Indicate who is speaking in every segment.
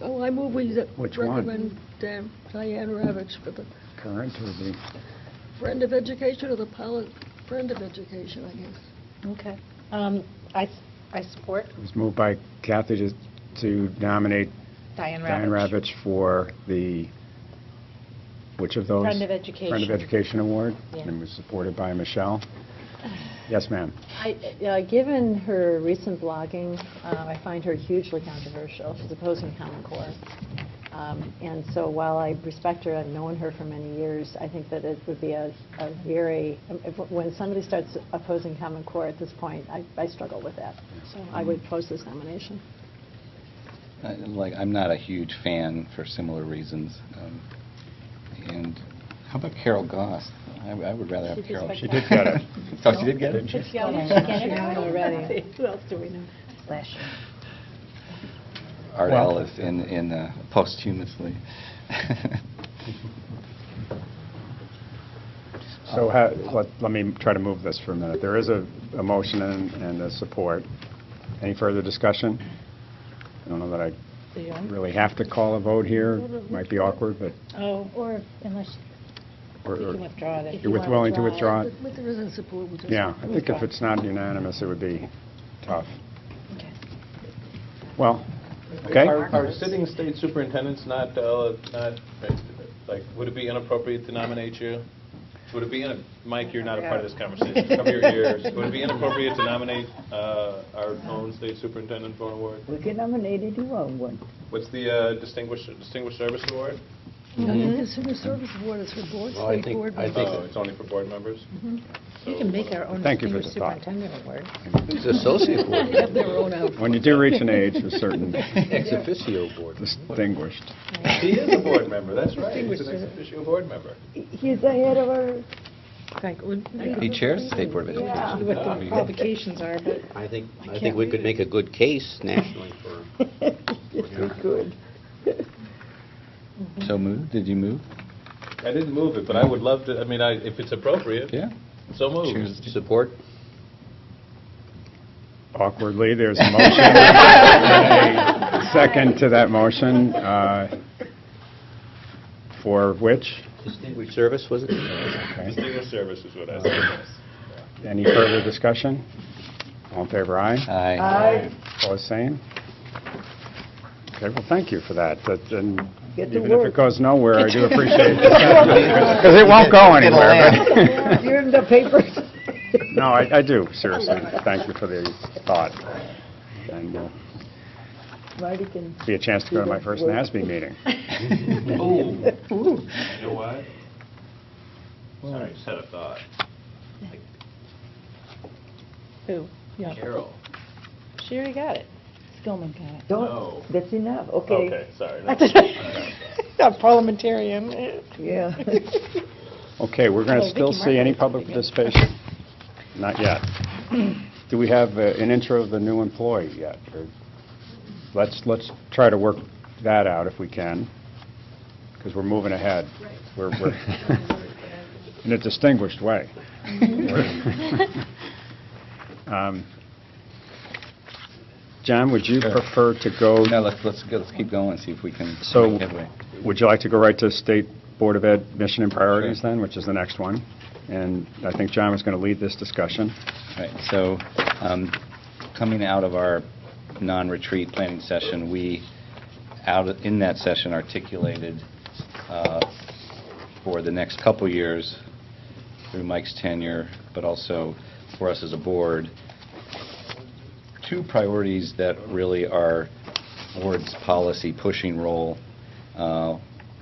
Speaker 1: Oh, I move we z-
Speaker 2: Which one?
Speaker 1: recommend um, Diane Ravitch for the
Speaker 2: current or the,
Speaker 1: Friend of Education or the Pilot Friend of Education, I guess.
Speaker 3: Okay. Um, I, s- I support
Speaker 2: it was moved by Kathy to- to nominate
Speaker 3: Diane Ravitch.
Speaker 2: Diane Ravitch for the, which of those?
Speaker 3: Friend of Education.
Speaker 2: Friend of Education Award,
Speaker 3: Yeah.
Speaker 2: and was supported by Michelle. Yes, ma'am.
Speaker 4: I- uh, Given her recent blogging, uh, I find her hugely controversial. She's opposing Common Core. Um, And so while I respect her, I've known her for many years, I think that it would be a a very, um, if- when somebody starts opposing Common Core at this point, I I struggle with that. So I would oppose this nomination.
Speaker 5: I- Like, I'm not a huge fan for similar reasons. Um, And how about Carol Goss? I I would rather have
Speaker 4: She
Speaker 5: Carol.
Speaker 4: just She did got
Speaker 2: it.
Speaker 5: So Oh, she did get it?
Speaker 4: Yeah,
Speaker 3: we should get it already.
Speaker 4: Who else do we know?
Speaker 3: Slash.
Speaker 5: Art
Speaker 2: Well-
Speaker 5: Ellis in, in uh, posthumously.
Speaker 2: So ha- let let me try to move this for a minute. There is a a motion and and a support. Any further discussion? I don't know that I really have to call a vote here. Might be awkward, but
Speaker 3: Oh, or unless
Speaker 2: or-
Speaker 3: you
Speaker 2: or
Speaker 3: can withdraw it.
Speaker 4: If
Speaker 2: you're
Speaker 4: you
Speaker 2: with- willing to
Speaker 4: withdraw
Speaker 2: withdraw it?
Speaker 1: But but there isn't support, we just...
Speaker 2: Yeah, I think if it's not unanimous, it would be tough.
Speaker 3: Okay.
Speaker 2: Well, okay?
Speaker 6: Are are sitting state superintendents not, uh, not, like, would it be inappropriate to nominate you? Would it be, in- Mike, you're not a part of this conversation, cover your ears. Would it be inappropriate to nominate uh, our own state superintendent for an award?
Speaker 7: We can nominate it, you want one.
Speaker 6: What's the uh, distinguished, distinguished service award?
Speaker 1: No, the Consumer Service Board is for boards,
Speaker 8: Well, I
Speaker 1: for
Speaker 8: think-
Speaker 1: board
Speaker 8: I
Speaker 1: members.
Speaker 8: think-
Speaker 6: Oh, it's only for board members?
Speaker 3: We can make our own
Speaker 2: Thank you for
Speaker 3: distinguished
Speaker 2: the thought.
Speaker 3: superintendent award.
Speaker 8: It's associate board,
Speaker 1: They have their own outfit.
Speaker 2: When you do reach an age, a certain
Speaker 8: ex officio board.
Speaker 2: distinguished.
Speaker 6: He is a board member, that's right. He's an ex officio board member.
Speaker 7: He's the head of our,
Speaker 3: Like, would-
Speaker 5: He chairs the State Board of Education.
Speaker 3: What the qualifications are, but
Speaker 8: I think, I
Speaker 3: can't
Speaker 8: think we
Speaker 3: read
Speaker 8: could
Speaker 3: it.
Speaker 8: make a good case nationally for,
Speaker 7: we could.
Speaker 5: So moved, did you move?
Speaker 6: I didn't move it, but I would love to, I mean, I, if it's appropriate,
Speaker 5: Yeah.
Speaker 6: so moved.
Speaker 5: Choose-
Speaker 8: support.
Speaker 2: Awkwardly, there's a motion. and a Second to that motion, uh, for which?
Speaker 8: Distinguished service, was it?
Speaker 2: Okay.
Speaker 6: Distinguished service is what I said.
Speaker 2: Any further discussion? All in favor, aye?
Speaker 4: Uh,
Speaker 5: Aye.
Speaker 2: Opposed, same? Okay, well, thank you for that. That- And
Speaker 7: Get to
Speaker 2: even if it
Speaker 7: work.
Speaker 2: goes nowhere, I do appreciate it. Because it won't go anywhere. but-
Speaker 7: You're in the papers.
Speaker 2: No, I I do, seriously. Thank you for the thought. And uh,
Speaker 7: Marty can,
Speaker 2: be a chance to go to my first NASB meeting.
Speaker 6: Ooh. You know what? Sorry, just had a thought.
Speaker 3: who? Yeah.
Speaker 6: Carol.
Speaker 3: She already got it. Skillman got
Speaker 6: No.
Speaker 7: don't, that's enough, okay.
Speaker 6: Okay, sorry.
Speaker 3: it. Not parliamentarian.
Speaker 7: Yeah.
Speaker 2: Okay, we're going
Speaker 3: Oh,
Speaker 2: to
Speaker 3: Vicky
Speaker 2: still see any public participation? Not yet. Do we have uh, an intro of the new employee yet? Or- Let's, let's try to work that out if we can, because we're moving ahead. We're, we're, in a distinguished way. Um, John, would you
Speaker 5: Sure.
Speaker 2: prefer to go,
Speaker 5: No, let's, let's go, let's keep going, see if we can
Speaker 2: So-
Speaker 5: make headway.
Speaker 2: would you like to go right to State Board of Ed mission and priorities then, which is the next one? And I think John was going to lead this discussion.
Speaker 5: Right, so, um, coming out of our non-retreat planning session, we, out, in that session articulated, uh, for the next couple years, through Mike's tenure, but also for us as a board, two priorities that really are board's policy pushing role, uh,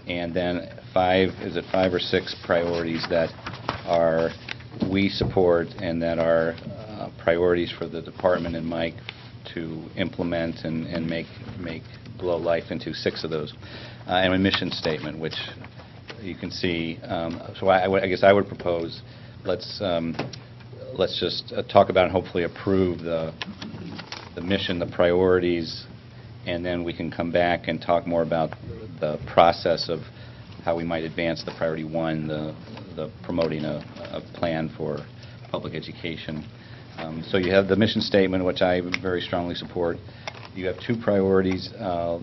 Speaker 5: and then five, is it five or six priorities that are, we support and that are uh, priorities for the department and Mike to implement and, and make, make, blow life into six of those. Uh, And a mission statement, which you can see, um, so I, I would- I guess I would propose, let's, um, let's just uh, talk about and hopefully approve the, the mission, the priorities, and then we can come back and talk more about the process of how we might advance the priority one, the the promoting a, a plan for public education. Um, So you have the mission statement, which I very strongly support. You have two priorities, uh,